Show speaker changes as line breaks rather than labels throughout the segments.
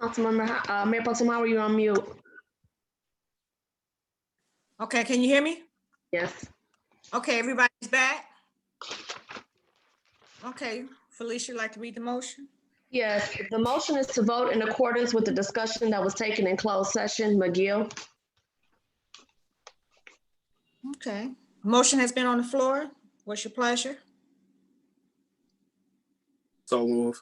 Councilmember, uh, Mayor Protem Howard, you're on mute.
Okay, can you hear me?
Yes.
Okay, everybody's back? Okay, Felicia, you'd like to read the motion?
Yes, the motion is to vote in accordance with the discussion that was taken in closed session. McGill?
Okay, motion has been on the floor. What's your pleasure?
So move.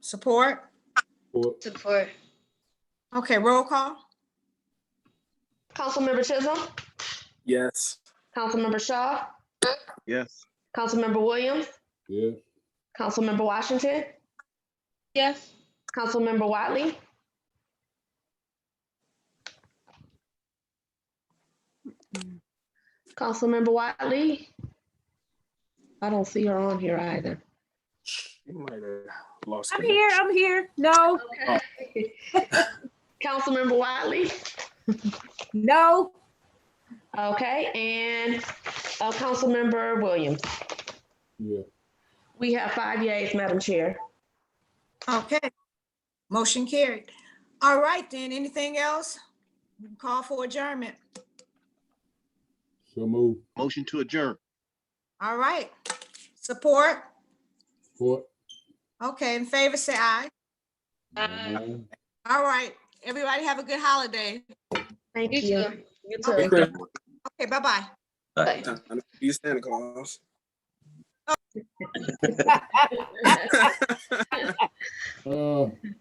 Support?
Support.
Okay, roll call?
Councilmember Chisholm?
Yes.
Councilmember Shaw?
Yes.
Councilmember Williams?
Yeah.
Councilmember Washington?
Yes.
Councilmember Wiley? Councilmember Wiley? I don't see her on here either.
You might have lost.
I'm here, I'm here. No,
Councilmember Wiley?
no,
Okay, and uh, Councilmember Williams.
Yeah.
We have five yays, Madam Chair.
Okay, motion carried. All right, then, anything else? Call for adjournment.
So move.
Motion to adjourn.
All right, support?
Support.
Okay, in favor, say aye.
Aye.
All right, everybody have a good holiday.
Thank
You
you.
too.
You
Hey,
too.
Chris,
Okay, bye-bye.
Bye.
You Santa Claus.
Thank
Uh,